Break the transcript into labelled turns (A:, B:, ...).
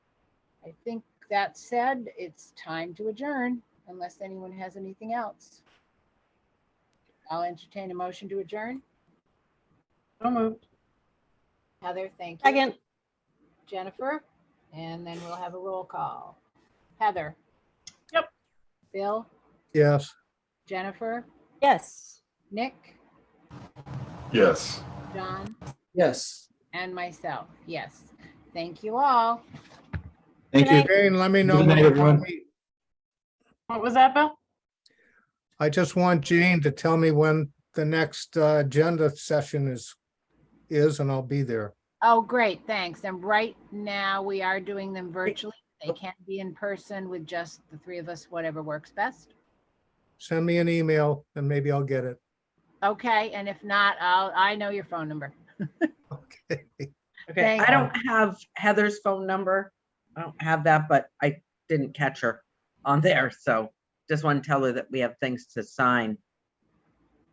A: I think that said, it's time to adjourn unless anyone has anything else. I'll entertain a motion to adjourn.
B: So moved.
A: Heather, thank you.
C: Second,
A: Jennifer, and then we'll have a roll call. Heather?
B: Yep.
A: Bill,
D: Yes.
A: Jennifer,
C: yes.
A: Nick,
E: Yes.
A: John,
F: Yes.
A: and myself. Yes. Thank you all.
E: Thank
C: Good
E: you.
C: night.
D: Jane, let me know.
E: Good night,
D: when-
E: everyone.
B: What was that, Bill?
D: I just want Jane to tell me when the next uh, agenda session is, is, and I'll be there.
A: Oh, great, thanks. And right now, we are doing them virtually. They can't be in person with just the three of us, whatever works best.
D: Send me an email and maybe I'll get it.
A: Okay, and if not, I'll, I know your phone number.
D: Okay.
B: Okay,
A: Thank
B: I
C: you.
B: don't,
C: don't
G: have Heather's phone number. I don't have that, but I didn't catch her on there. So just want to tell her that we have things to sign